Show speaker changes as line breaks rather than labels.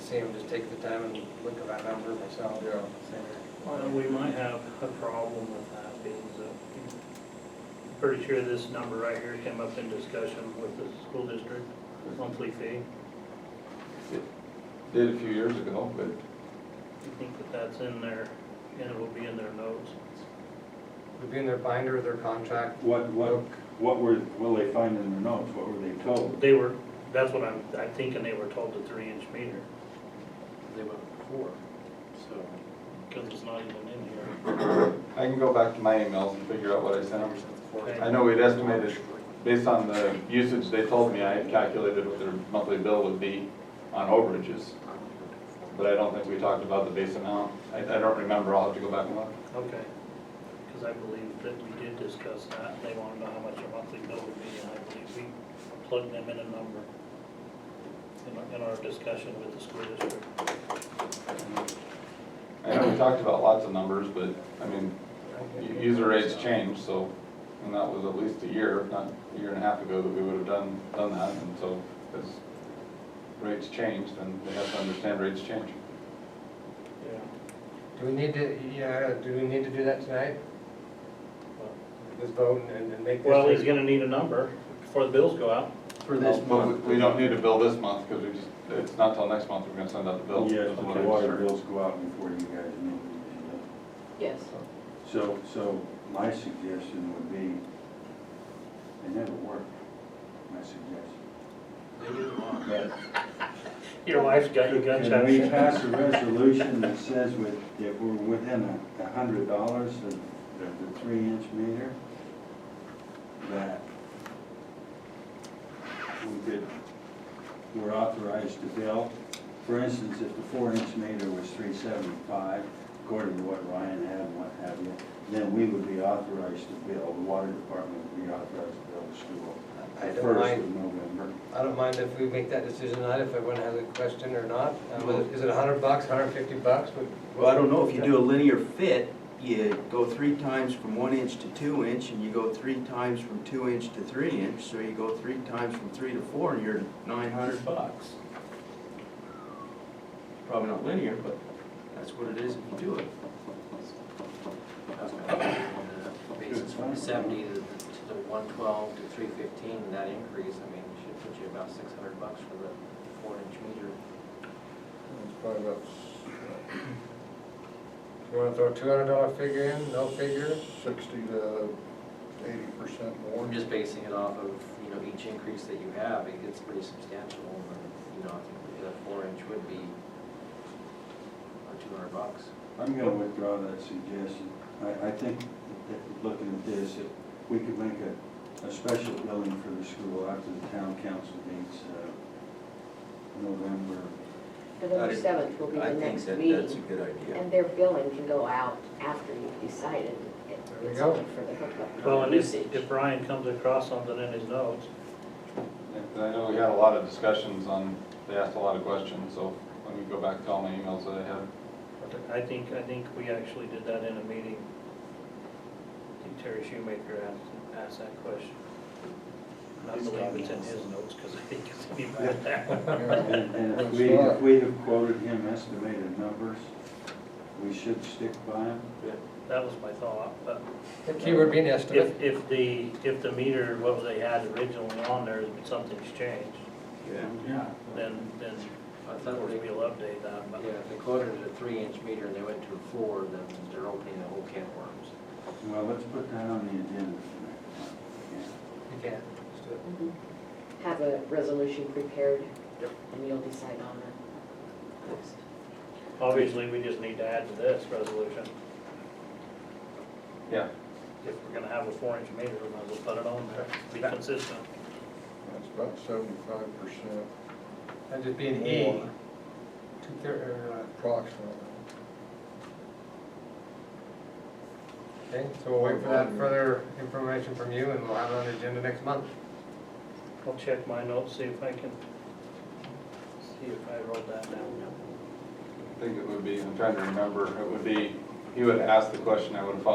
see them, just take the time and look at that number myself.
Yeah.
Well, we might have a problem with that, because uh, I'm pretty sure this number right here came up in discussion with the school district, monthly fee.
Did a few years ago, but
You think that that's in there, and it will be in their notes.
Would be in their binder, their contract.
What, what, what were, will they find in their notes? What were they told?
They were, that's what I'm, I'm thinking they were told the three-inch meter,
They went four, so.
because it's not even in here.
I can go back to my emails and figure out what I sent them.
Okay.
I know we'd estimated, based on the usage they told me, I had calculated what their monthly bill would be on overages. But I don't think we talked about the base amount. I, I don't remember, I'll have to go back and look.
Okay. Because I believe that we did discuss that, and they wanted to know how much a monthly bill would be, and I believe we plugged them in a number in our, in our discussion with the school district.
I know we talked about lots of numbers, but, I mean, u- user rates change, so, and that was at least a year, if not a year and a half ago that we would have done, done that, and so, as rates changed, then they have to understand rates change.
Yeah.
Do we need to, yeah, do we need to do that tonight? Just vote and and make this.
Well, he's gonna need a number before the bills go out.
For
Well, we- We don't need a bill this month, because we just, it's not till next month we're gonna send out the bill.
Yes,
is
but
what
the
I
water
heard.
bills go out before you guys know. what
Yes,
you're doing. So, so my suggestion would be, they never work, my suggestion.
They did them all.
But
Your wife's got you gun
Can we
shy.
pass a resolution that says with, that we're within a, a hundred dollars of the, the three inch meter? That we could, we're authorized to bill. For instance, if the four inch meter was three seventy-five, according to what Ryan had and what have you, then we would be authorized to bill, the water department would be authorized to bill the school.
I
the
don't
First
mind,
of November.
I don't mind if we make that decision tonight, if everyone has a question or not. Uh, whether- Is it a hundred bucks, hundred and fifty bucks? Would-
Well, I don't know, if you do a linear fit, you go three times from one inch to two inch, and you go three times from two inch to three inch, so you go three times from three to four, and you're nine hundred bucks. Probably not linear, but that's what it is if you do it.
That's what I mean, the Basis from seventy to the to one twelve to three fifteen, that increase, I mean, should put you about six hundred bucks for the four inch meter.
uh, You wanna throw a two hundred dollar figure in, no figure?
sixty to eighty percent more.
We're just basing it off of, you know, each increase that you have, it gets pretty substantial, and, you know, I think the four inch would be uh, two hundred bucks.
I'm gonna withdraw that suggestion. I, I think that looking at this, that we could make a, a special billing for the school after the town council meets, uh, November.
November seventh will be the next meeting,
good idea.
and their billing can go out after you've decided it-
There we
it's
go.
only for the hookup.
Well, and if,
usage.
if Brian comes across something in his notes,
I know we had a lot of discussions on, they asked a lot of questions, so let me go back to all my emails that I had.
I think, I think we actually did that in a meeting. I think Terry Shoemaker asked, asked that question. And I believe it's in his notes, because I think it's in there.
And and if we, if we have quoted him estimated numbers, we should stick by him.
That was my thought, but
The keyword being estimate.
if, if the, if the meter, what they had originally on there, if something's changed,
Yeah.
Yeah.
then, then
I
of
thought
course
they
we'll update that, but
Yeah, if they quoted it a three inch meter and they went to a four, then they're opening the whole can of worms.
Well, let's put that on the agenda for next month. yeah.
You can't. Just do it.
Mhm. Have a resolution prepared,
Yep.
and you'll decide on it.
obviously, we just need to add to this resolution.
Yeah.
If we're gonna have a four-inch meter, we might as well put it on there, be consistent.
That's about seventy-five percent
That'd just be an E.
More.
Two thirty, or,
approximately.
uh, okay, so we'll wait for that further information from you and we'll have it on the agenda next month.
I'll check my notes, see if I can, see if I wrote that down.
I think it would be, I'm trying to remember, it would be, he would ask the question, I would have followed